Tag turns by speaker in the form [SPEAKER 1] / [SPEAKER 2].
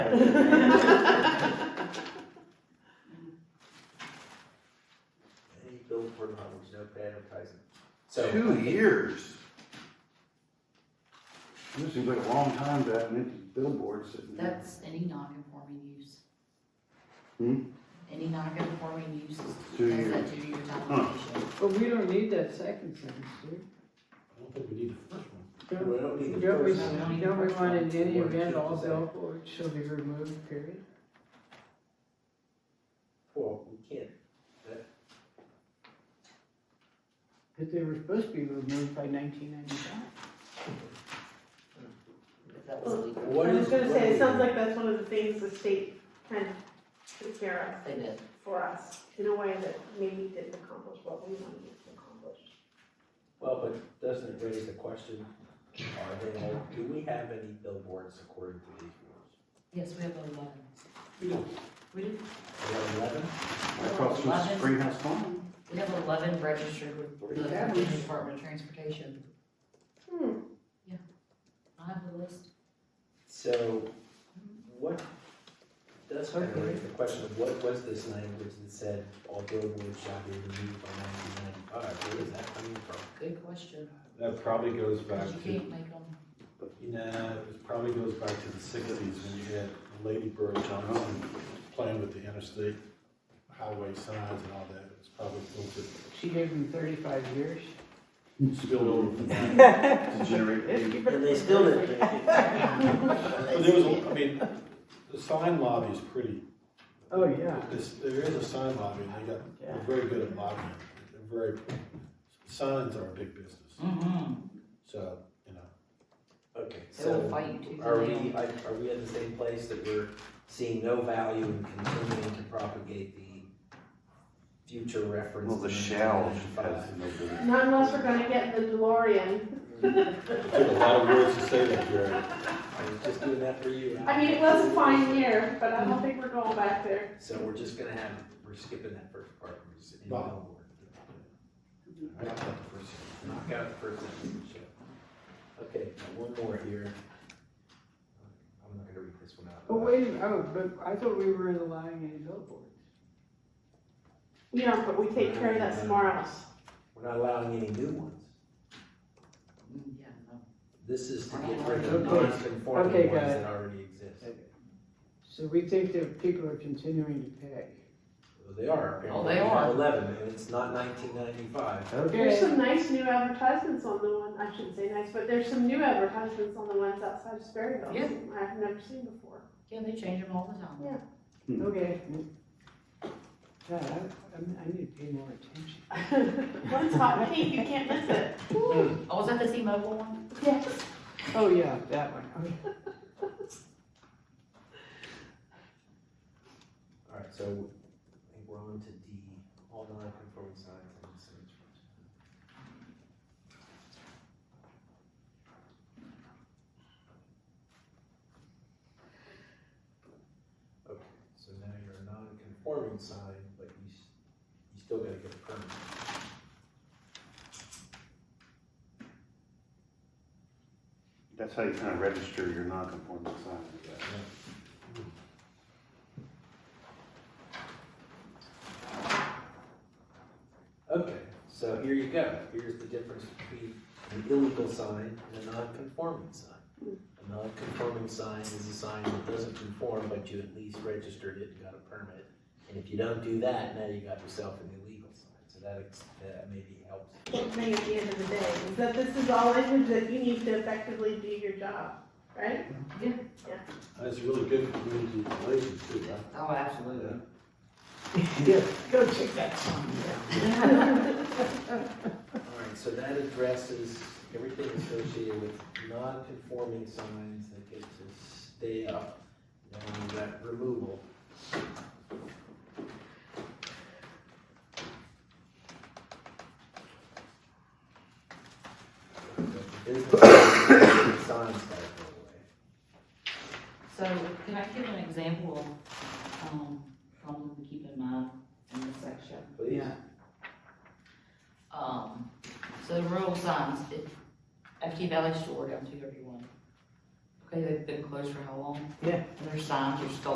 [SPEAKER 1] advertising.
[SPEAKER 2] So,
[SPEAKER 3] Two years? This seems like a long time to have an empty billboard sitting there.
[SPEAKER 4] That's any non-conforming use.
[SPEAKER 3] Hmm?
[SPEAKER 4] Any non-conforming use is,
[SPEAKER 3] Two
[SPEAKER 4] has
[SPEAKER 3] years.
[SPEAKER 4] that two-year time issue.
[SPEAKER 5] But we don't need that second sentence, do
[SPEAKER 6] I don't think we need the first one.
[SPEAKER 5] we?
[SPEAKER 6] We don't need the
[SPEAKER 5] Don't we,
[SPEAKER 6] first
[SPEAKER 4] one.
[SPEAKER 5] don't we want in any event all billboards shall be removed, period?
[SPEAKER 6] Well, we can't.
[SPEAKER 5] Cause they were supposed to be removed by nineteen ninety-five.
[SPEAKER 4] If that was legal,
[SPEAKER 6] What
[SPEAKER 7] I
[SPEAKER 6] is?
[SPEAKER 7] was gonna say,
[SPEAKER 6] what
[SPEAKER 7] it sounds
[SPEAKER 6] is-
[SPEAKER 7] like that's one of the things the state kind of took care
[SPEAKER 4] they did.
[SPEAKER 7] of for us, in a way that maybe didn't accomplish what we wanted it to accomplish.
[SPEAKER 6] Well, but doesn't it raise the question, are they all, do we have any billboards according to these rules?
[SPEAKER 4] Yes, we have eleven.
[SPEAKER 6] We do.
[SPEAKER 4] We do,
[SPEAKER 6] We have eleven?
[SPEAKER 3] Across from
[SPEAKER 4] Eleven.
[SPEAKER 3] Springhouse Farm?
[SPEAKER 4] we have eleven registered with the
[SPEAKER 3] Yeah.
[SPEAKER 4] Virginia Department of Transportation.
[SPEAKER 7] Hmm.
[SPEAKER 4] I have the list.
[SPEAKER 6] So, what, that's kind of raise the question of what was this language that said all billboards shall be removed by nineteen ninety-five? Where is that coming from?
[SPEAKER 4] Good question.
[SPEAKER 1] That probably goes back
[SPEAKER 4] 'Cause you
[SPEAKER 1] to,
[SPEAKER 4] can't make them,
[SPEAKER 1] you know, it probably goes back to the sixties when you had Lady Bird Johnson playing with the interstate highway signs and all that. It's probably a little
[SPEAKER 5] She gave them thirty-five years.
[SPEAKER 1] bit spilled over from that.
[SPEAKER 3] To generate the-
[SPEAKER 6] And they still didn't do
[SPEAKER 1] But there was, a- I mean, the sign lobby is pretty
[SPEAKER 5] Oh, yeah.
[SPEAKER 1] This, there is a sign lobby, and they got, they're very good at lobbying, they're very, signs are a big business,
[SPEAKER 4] mm-hmm,
[SPEAKER 1] so, you know.
[SPEAKER 6] Okay,
[SPEAKER 4] they'll
[SPEAKER 6] so
[SPEAKER 4] fight tooth
[SPEAKER 6] are
[SPEAKER 4] and nail.
[SPEAKER 6] we, I- are we at the same place that we're seeing no value in continuing to propagate the future reference?
[SPEAKER 3] Well, the
[SPEAKER 6] to
[SPEAKER 3] shell
[SPEAKER 6] 1995?
[SPEAKER 3] has no billboard.
[SPEAKER 7] Not unless we're gonna get the DeLorean.
[SPEAKER 1] It took a lot of words to say that, Jerry.
[SPEAKER 6] I was just doing that for you.
[SPEAKER 7] I mean, it was a fine year, but I don't think we're going back there.
[SPEAKER 6] So we're just gonna have, we're skipping that first part, we're just in
[SPEAKER 1] Bob.
[SPEAKER 6] billboard. Knock out the first, knock out the first sentence, Michelle. Okay, now one more here. I'm not gonna read this one out.
[SPEAKER 5] But wait, a minute, oh, but I thought we weren't allowing any billboards.
[SPEAKER 7] You know, but we take care of that somewhere else.
[SPEAKER 6] We're not allowing any new ones.
[SPEAKER 4] Mm, Yeah, no.
[SPEAKER 6] This is to get rid of
[SPEAKER 5] Okay. Okay,
[SPEAKER 6] non-conforming
[SPEAKER 5] got
[SPEAKER 6] ones
[SPEAKER 5] it.
[SPEAKER 6] that already exist.
[SPEAKER 5] So we think that people are continuing to pay.
[SPEAKER 6] Well, They are, apparently.
[SPEAKER 4] Oh, they
[SPEAKER 6] We have
[SPEAKER 4] are.
[SPEAKER 6] Eleven, and it's not nineteen ninety-five.
[SPEAKER 7] There's
[SPEAKER 5] Okay,
[SPEAKER 7] some nice new advertisements on the one, I shouldn't say nice, but there's some new advertisements on the ones outside of Sperryville.
[SPEAKER 4] Yeah.
[SPEAKER 7] I've never seen before.
[SPEAKER 4] Yeah, they change them all the time.
[SPEAKER 7] Yeah.
[SPEAKER 5] okay. God, I, I'm- I need to pay more attention.
[SPEAKER 7] One's hot pink, you can't miss it.
[SPEAKER 4] Oh, was that the T-Mobile one?
[SPEAKER 7] Yes.
[SPEAKER 5] Oh, yeah, that one, okay.
[SPEAKER 6] All right, so I think we're on to D, all non-conforming signs and signage. Okay, so now you're a non-conforming sign, but you, s- you still gotta get a permit.
[SPEAKER 3] That's how you kind of register your non-conforming sign, I guess.
[SPEAKER 6] Okay, so here you go, here's the difference between an illegal sign and a non-conforming sign. A non-conforming sign is a sign that doesn't conform, but you at least registered it and got a permit. And if you don't do that, now you got yourself an illegal sign, so that, ex- that maybe helps.
[SPEAKER 7] One thing at the end of the day is that this is all language that you need to effectively do your job, right?
[SPEAKER 1] And it's really good for community relations too, right?
[SPEAKER 4] Oh, absolutely.
[SPEAKER 5] Yeah, go check that song
[SPEAKER 6] Alright, so that addresses everything associated with non-conforming signs that get to stay up, and that removal. Business signs gotta go away.
[SPEAKER 4] So can I give an example of, um, problem to keep in mind in this section?
[SPEAKER 6] Please.
[SPEAKER 5] Yeah.
[SPEAKER 4] Um, so the rural signs, it, FT Valley Store down two thirty-one. Okay, they've been closed for how long?
[SPEAKER 5] Yeah.
[SPEAKER 4] And their signs are still